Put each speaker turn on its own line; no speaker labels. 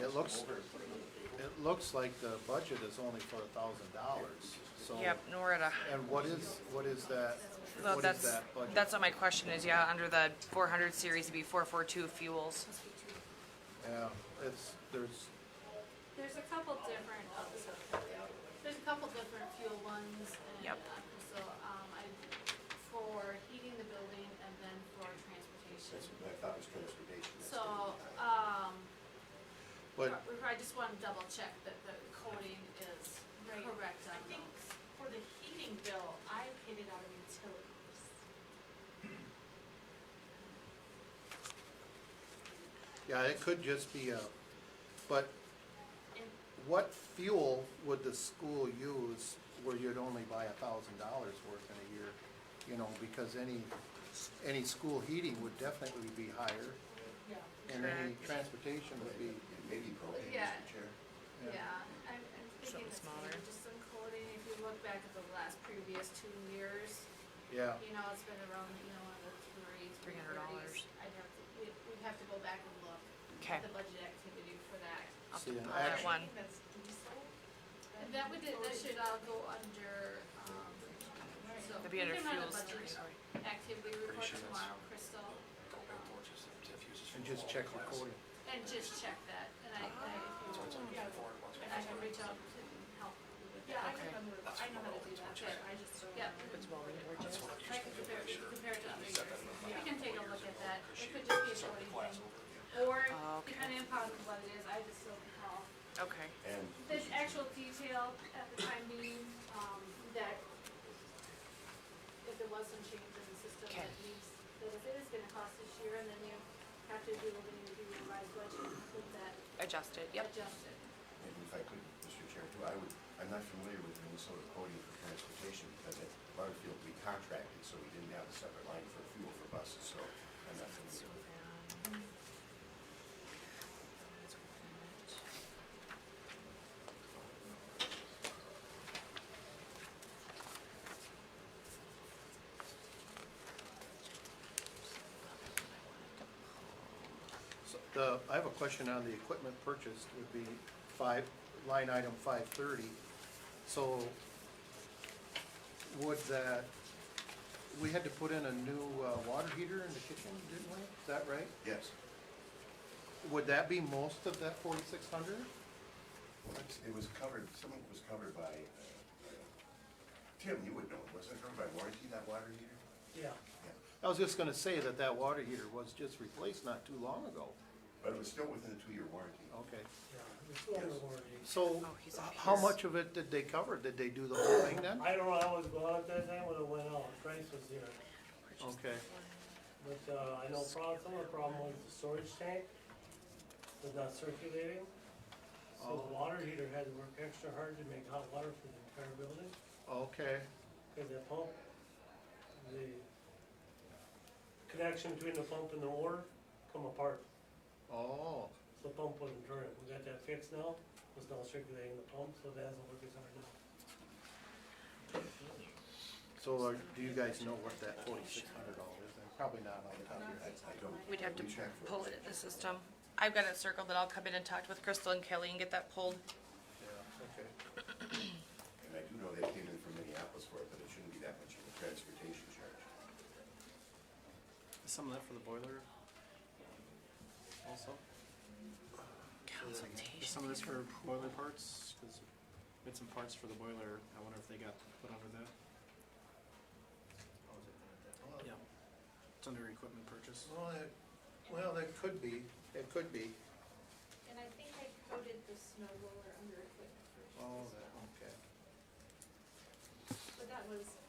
it looks, it looks like the budget is only for a thousand dollars, so.
Yep, Norita.
And what is, what is that,
Well,
what is
that's,
that budget?
that's what my question is, yeah, under the four hundred series, it'd be four four two fuels.
Yeah, it's, there's,
There's a couple different, oh, this is- there's a couple different fuel ones and,
Yep.
uh, so, um, I, for heating the building and then for transportation.
That's what I thought was transportation. That's
So, um, we
but,
probably just wanna double check that the coding is
Right.
correct
I
on
think
those.
for the heating bill, I paid it out of utilities.
yeah, it could just be a, but
And
what fuel would the school use where you'd only buy a thousand dollars worth in a year? You know, because any, any school heating would definitely be higher,
Yeah.
and any
Correct.
transportation would be,
Maybe propane,
Yeah.
Mr. Chair.
Yeah, I'm, I'm
Something
thinking it's
smaller.
maybe just some coding, if you look back at the last previous two years,
yeah.
you know, it's been around, you know, in the three, three
$300.
thirties. I'd have to, we'd, we'd have to go back and look
Okay,
at the budget activity for that.
I'll
See, an
pull that
action-
one.
I think that's diesel.
And that would, that should all go under, um, so.
It'd be under fuels.
budget activity report tomorrow, Crystal,
And just check your coding.
and just check that, and I, I,
Ah.
if you want,
Yeah,
and I can reach out and help with
yeah, I
that.
Okay.
remember, I know how to do that, but I just don't.
Yeah.
remember.
That's
It's I can compare, we can compare it to other years, we
Yeah.
can take a look at that, it could just be a voting thing, or
Ah, Okay.
depending upon what it is, I just don't recall.
Okay,
And
The actual detail at the time being, um, that if there was some change in the system
Okay.
that needs, that if it is gonna cost this year, and then you have to do, when you do your revised budget, include that
adjust it, yep.
adjusted.
and if I could, Mr. Chair, too, I would, I'm not familiar with Minnesota coding for transportation because at Butterfield, we contracted, so we didn't have a separate line for fuel for buses, so I'm not familiar with it.
So The, I have a question on the equipment purchased would be five, line item five thirty. So would that, we had to put in a new uh, water heater in the kitchen, didn't we? Is that right?
Yes.
Would that be most of that forty-six hundred?
Well, it's- It was covered, some of it was covered by, uh, uh, Tim, you would know, it wasn't it covered by warranty, that water heater?
Yeah,
Yeah.
I was just gonna say that that water heater was just replaced not too long ago.
But it was still within the two-year warranty. Oh,
Okay.
yeah, it's under warranty.
So
Oh, he's a
how
piece.
much of it did they cover? Did they do the whole thing then?
I don't know how it was bought at that time when it went out, price was zero.
Okay,
But, uh, I know prob- some of the problem was the storage tank was not circulating. So the water heater had to work extra hard to make hot water for the entire building,
okay,
cause the pump, the connection between the pump and the water come apart.
oh,
So the pump wasn't turning, we got that fixed now, it's now circulating the pump, so that doesn't work as hard now.
so are- do you guys know what that forty-six hundred dollars is? Probably not on the top of your
I,
head.
I don't.
We'd have to
we checked for it.
pull it in the system. I've got it circled, that I'll come in and talk with Crystal and Kelly and get that pulled.
Yeah, okay.
And I do know they came in from Minneapolis for it, but it shouldn't be that much of a transportation charge.
Some of that for the boiler also? Is
Consultation.
Some of this for boiler parts, cause we had some parts for the boiler, I wonder if they got put under that?
Oh,
Yeah. It's under equipment purchase.
Well, it, well, that could be, it could be.
And I think I coded the snow roller under equipment
Oh,
purchase,
that, okay.
but that was mm,